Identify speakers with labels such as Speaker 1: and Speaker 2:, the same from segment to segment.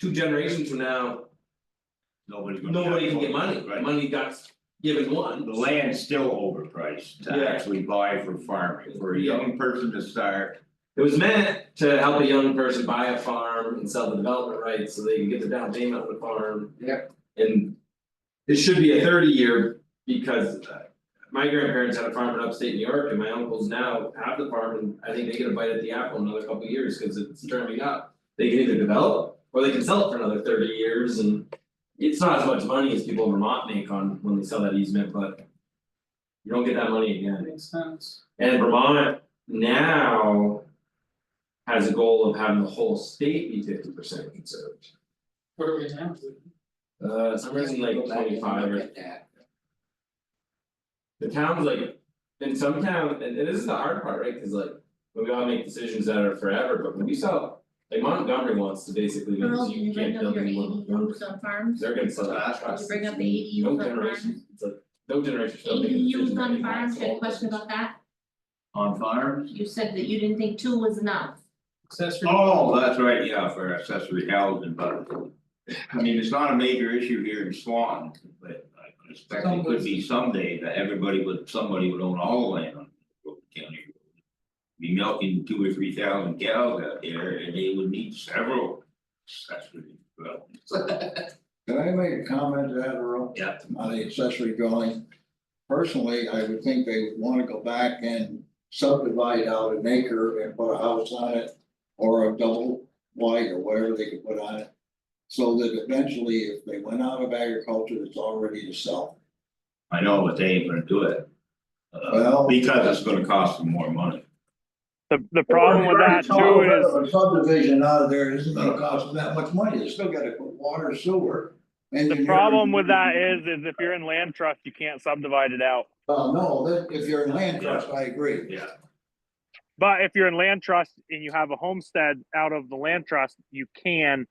Speaker 1: two generations from now,
Speaker 2: Nobody's gonna.
Speaker 1: nobody can get money,
Speaker 2: Right.
Speaker 1: money got given one.
Speaker 2: The land's still overpriced
Speaker 1: Yeah.
Speaker 2: to actually buy for farming, for a young person to start,
Speaker 1: It was meant to help a young person buy a farm and sell the development rights, so they can get the down payment on the farm.
Speaker 2: Yep.
Speaker 1: And. It should be a thirty year, because uh, my grandparents had a farm in upstate New York, and my uncles now have the farm, and I think they get a bite at the apple in another couple of years, cause it's turning up. They can either develop, or they can sell it for another thirty years, and it's not as much money as people in Vermont make on when they sell that easement, but. You don't get that money again.
Speaker 3: makes sense.
Speaker 1: And Vermont now. Has a goal of having the whole state be fifty percent conserved,
Speaker 3: What are we now?
Speaker 1: uh, somewhere in like twenty five or, the town's like. In some town, and and this is the hard part, right, cause like, we all make decisions that are forever, but when you sell, like Montgomery wants to basically,
Speaker 4: Earl,
Speaker 1: because
Speaker 4: did
Speaker 1: you
Speaker 4: you bring
Speaker 1: can't
Speaker 4: up
Speaker 1: build
Speaker 4: your
Speaker 1: any more.
Speaker 4: ADUs on farms?
Speaker 1: They're gonna sell that
Speaker 4: Did
Speaker 1: trust.
Speaker 4: you bring up the
Speaker 1: No
Speaker 4: ADUs on farms?
Speaker 1: generation, it's like, no generation shall make a decision
Speaker 4: ADUs
Speaker 1: that
Speaker 4: on
Speaker 1: impacts
Speaker 4: farms, you had a
Speaker 1: all
Speaker 4: question
Speaker 1: of us.
Speaker 4: about that?
Speaker 2: on farms.
Speaker 4: You said that you didn't think two was enough.
Speaker 3: Accessory.
Speaker 2: Oh, that's right, yeah, for accessory housing, but. I mean, it's not a major issue here in Swan, but I expect it could be someday that everybody would, somebody would own all the land on Brooklyn County. Road. Be milking two or three thousand cows out there and they would need several accessory developments.
Speaker 5: Can I make a comment to that, Earl?
Speaker 2: Yeah.
Speaker 5: On the accessory dwelling? Personally, I would think they would wanna go back and subdivide out an acre and put a house on it. Or a double wide or whatever they could put on it. So that eventually, if they went out of agriculture, it's already to sell.
Speaker 2: I know, but they ain't gonna do it. Uh,
Speaker 5: Well-
Speaker 2: Because it's gonna cost them more money.
Speaker 6: The, the problem with that too is,
Speaker 5: A subdivision out of there isn't gonna cost them that much money, they still gotta put water, sewer.
Speaker 6: the problem with that is, is if you're in land trust, you can't subdivide it out.
Speaker 5: Well, no, that- if you're in land trust, I agree.
Speaker 2: Yeah.
Speaker 6: But if you're in land trust and you have a homestead out of the land trust, you can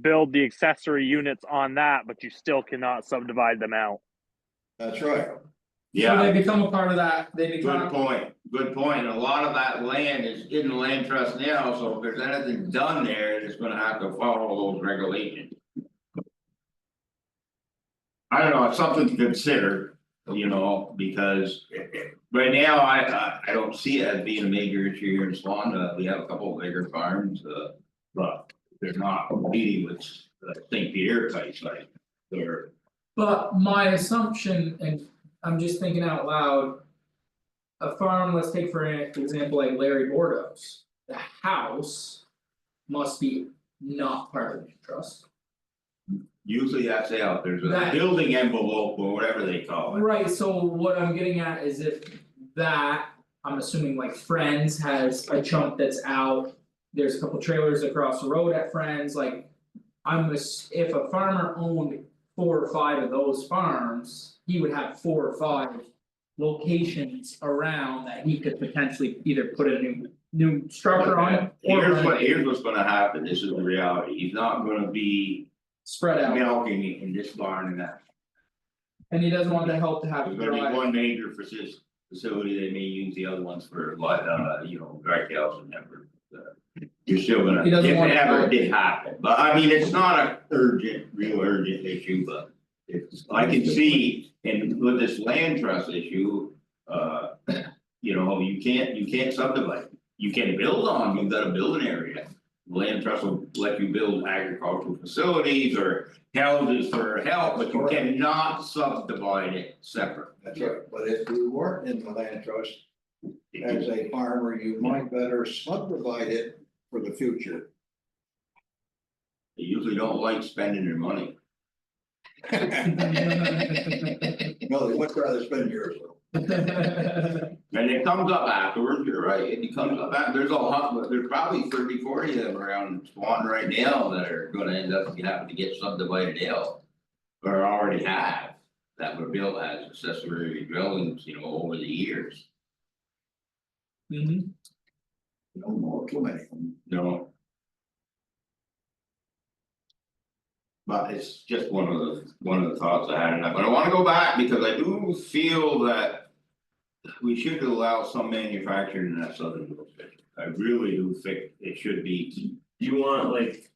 Speaker 6: build the accessory units on that, but you still cannot subdivide them out.
Speaker 5: That's right.
Speaker 3: So they become a part of that, they
Speaker 2: Good
Speaker 3: become,
Speaker 2: point, good point, and a lot of that land is in the land trust now, so if there's anything done there, it's gonna have to follow those regulations. I don't know, it's something to consider, you know, because it- it- right now, I I I don't see it as being a major issue here in Swan, uh, we have a couple of bigger farms, uh. But they're not competing with uh, St. Pierre type, like, they're,
Speaker 3: but my assumption, and I'm just thinking out loud. A farm, let's take for an example like Larry Bordeaux's, the house. Must be not part of the trust.
Speaker 2: usually that's out, there's a
Speaker 3: That-
Speaker 2: building envelope or whatever they call it.
Speaker 3: Right, so what I'm getting at is if that, I'm assuming like Friends has a chunk that's out. There's a couple trailers across the road at Friends, like. I'm ass- if a farmer owned four or five of those farms, he would have four or five. Locations around that he could potentially either put a new new structure on or
Speaker 2: Here's what, here's what's gonna happen, this is the reality, he's not gonna be
Speaker 3: spread out,
Speaker 2: milking it in this barn and that.
Speaker 3: and he doesn't want the help to have
Speaker 2: There's
Speaker 3: to
Speaker 2: gonna be
Speaker 3: drive.
Speaker 2: one major facis- facility, they may use the other ones for like, uh, you know, dry cows and ever. You're still gonna,
Speaker 3: He
Speaker 2: if
Speaker 3: doesn't want
Speaker 2: it
Speaker 3: to-
Speaker 2: ever did happen, but I mean, it's not a urgent, real urgent issue, but. It's, I can see, and with this land trust issue, uh, you know, you can't, you can't subdivide. You can build on, you've got a building area, land trust will let you build agricultural facilities or houses for help, but you cannot subdivide it separate.
Speaker 5: That's right, but if you weren't in the land trust, as a farmer, you might better subdivide it for the future.
Speaker 2: They usually don't like spending their money.
Speaker 5: No, they would rather spend yours.
Speaker 2: And it comes up afterwards, you're right, it comes up, af- there's a lot, there's probably 30, 40 of them around Swan right now that are gonna end up having to get subdivided out. Or already have, that were built as accessory dwellings, you know, over the years,
Speaker 3: Mhm.
Speaker 5: No more, too many.
Speaker 2: you know? But it's just one of the, one of the thoughts I had, and I, but I wanna go back because I do feel that. We should allow some manufacturing in that southern district, I really do think it should be
Speaker 1: Do you want like